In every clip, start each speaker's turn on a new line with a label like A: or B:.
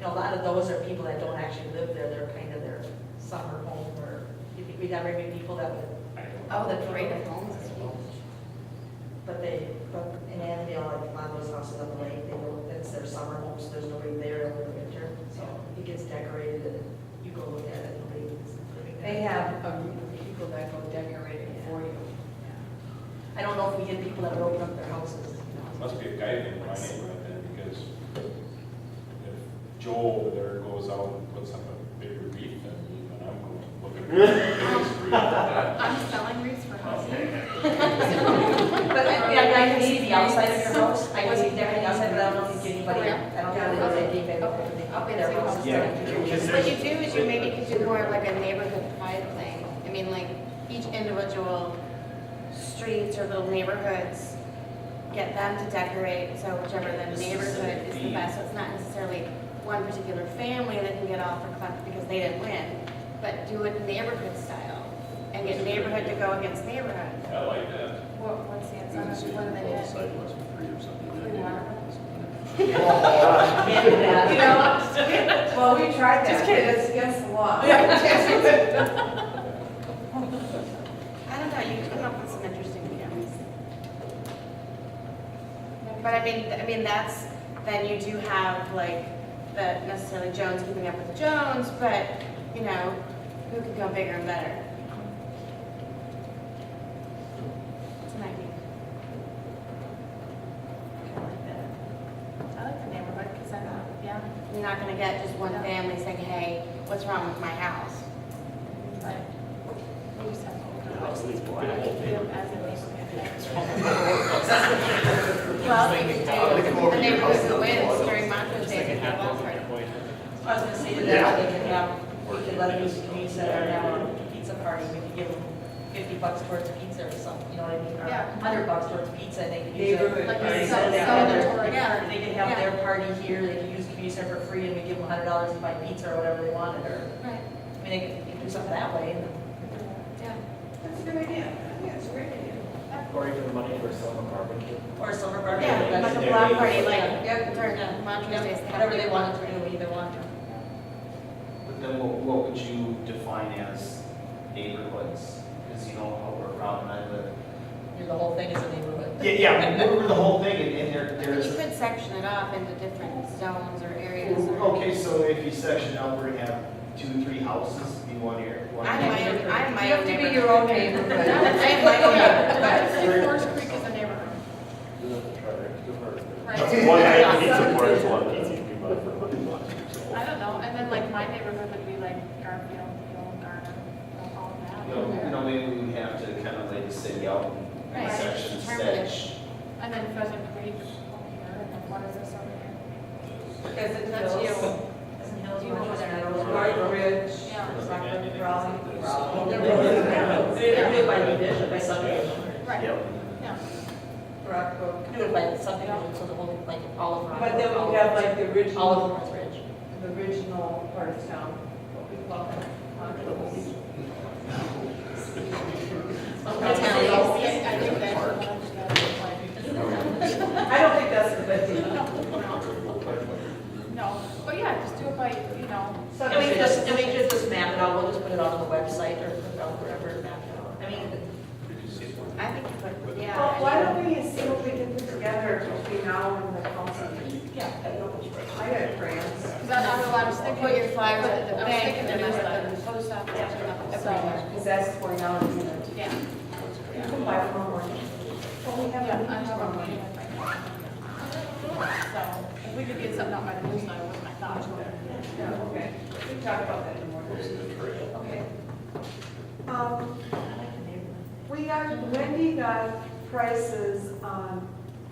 A: you know, a lot of those are people that don't actually live there, they're kind of their summer home, or you think we'd have very many people that would,
B: I don't know.
C: Oh, the parade of homes is huge.
A: but they, but in Annandale, like a lot of those houses on the lake, they don't, that's their summer home, so there's nobody there over the winter, so it gets decorated and you go look at it, nobody is living there.
C: They have a group of people that go decorate it for you.
A: I don't know if we get people that would open up their houses, you know.
B: Must be a guy in my neighborhood then, because if Joe over there goes out and puts up a bigger wreath than me, then I'm going to look at the
C: I'm selling wreaths for housing.
A: But I, yeah, I can see the outside of your house, I can see everything outside, but I don't think anybody, I don't think anybody gave it, up in their houses.
D: Yeah.
E: What you do is you maybe could do more of like a neighborhood pride thing. I mean, like each individual streets or little neighborhoods, get them to decorate, so whichever the neighborhood is the best. So it's not necessarily one particular family that can get all for collect because they didn't win, but do it neighborhood style and get neighborhood to go against neighborhood.
B: I like that.
E: What, what's the answer? What do they do?
D: sidewalks for free or
E: We want
D: something.
A: Can't do that.
C: You know, well, we tried that. Just kidding, it's against the law.
E: I don't know, you come up with some interesting ideas. But I mean, I mean, that's, then you do have like, the necessarily Jones keeping up with the Jones, but, you know, who could go bigger and better? It's an idea. I like the neighborhood, because I'm, yeah. You're not gonna get just one family saying, hey, what's wrong with my house? But we just have to open up to these people. I can feel as a neighborhood. Well, we could do, the neighborhood wins during Montrose Day, they have one party.
A: I was gonna say to that, they could have, we could let them use the community center now, a pizza party, we could give them fifty bucks towards pizza or something, you know what I mean? Or
E: Yeah.
A: Hundred bucks towards pizza, and they could use it.
C: Neighborhood.
E: Like
A: They
E: a
A: could
E: cel-
A: have their-
E: celebratory
A: Yeah,
E: party.
A: they could have their party here, they could use the community center for free, and we give them hundred dollars to buy pizza or whatever they wanted, or,
E: Right,
A: I mean, they could, they could do something that way, and
E: yeah.
C: That's a good idea. Yeah, it's a great idea.
D: Or even money for summer barbecue.
A: Or a silver bar.
E: Yeah,
A: that's-
E: like a block party, like,
A: Yeah.
E: during Montrose Day.
A: Yeah, Whatever they wanted to do, either one.
F: But then what, what would you define as neighborhoods? Because you know how we're around and I live.
A: You know, The whole thing is a neighborhood.
F: Yeah, yeah, we're, we're the whole thing and, and there,
E: I mean, you
F: there's.
E: could section it off into different zones or areas or.
F: Okay, so if you section out, we're gonna have two, three houses in one area. one-
E: I'm my own, I'm my own.
C: You have to be your own neighborhood.
E: I am my own neighborhood.
C: Horse Creek is a neighborhood.
D: That's one I need support, it's one easy to be bought for money.
G: I don't know, and then like my neighborhood would be like Garfield, Field, Garner, all that.
F: You know, you know, maybe we would have to kind of lay the city out in
E: Right.
F: sections
E: Determine
F: that.
E: it.
G: And then Pheasant Creek over here, and then what is this over here?
C: Because it's
E: That's
C: hills.
E: you.
A: Doesn't Hills
C: Do you know
A: Rochester,
C: where they're-
A: Rose
C: White
A: Park?
C: Ridge,
G: Yeah.
C: Rockland, Raleigh.
A: Raleigh. They're really- They're really by division, by subdivision.
G: Right,
F: Yeah.
G: yeah.
C: Rockbrook.
A: Do it by subdivision, so the whole, like, all of.
C: But then we have like the
A: All of
C: original,
A: North Ridge.
C: the original part of town, what we call it. Montrose.
E: That's how it is.
G: Yeah, I think that's.
C: I don't think that's a good thing.
G: No, but yeah, just do it by, you know,
A: So And we just, and we could just map it out, we'll just put it on the website or put it on wherever it mapped out. I mean,
E: I think you could, yeah.
C: Well, why don't we see what we can put together between now and the council meeting?
A: yeah, I don't know.
C: I got friends.
G: because I don't know, I was thinking.
E: Put your flyers
G: I
E: at the
G: was
E: bank
G: thinking
E: and then
G: there was
E: at the
G: like-
E: post office.
G: Yeah.
E: So,
C: Because that's going out in the,
G: Yeah.
C: you can buy them online. Well, we have
G: Yeah,
C: a
G: I have a
C: meeting tomorrow.
G: meeting with my So, if we could get something out by the newsletter, was my thought.
C: Yeah, okay. We can talk about that in the morning. Okay. Um, We got, Wendy got prices on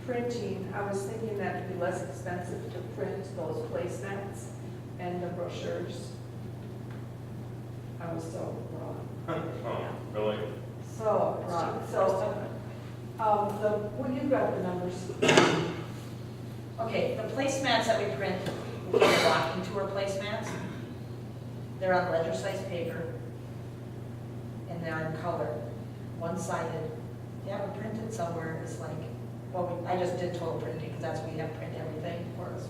C: printing. I was thinking that it'd be less expensive to print those placemats and the brochures. I was so wrong.
B: Oh, Really?
C: So, wrong. So, um, the, well, you got the numbers.
A: Okay, the placemats that we print, we have walking tour placemats. They're on ledger size paper. And they're in color, one sided. Yeah, we printed somewhere, it's like, well, we- I just did total printing, because that's, we have print everything for us.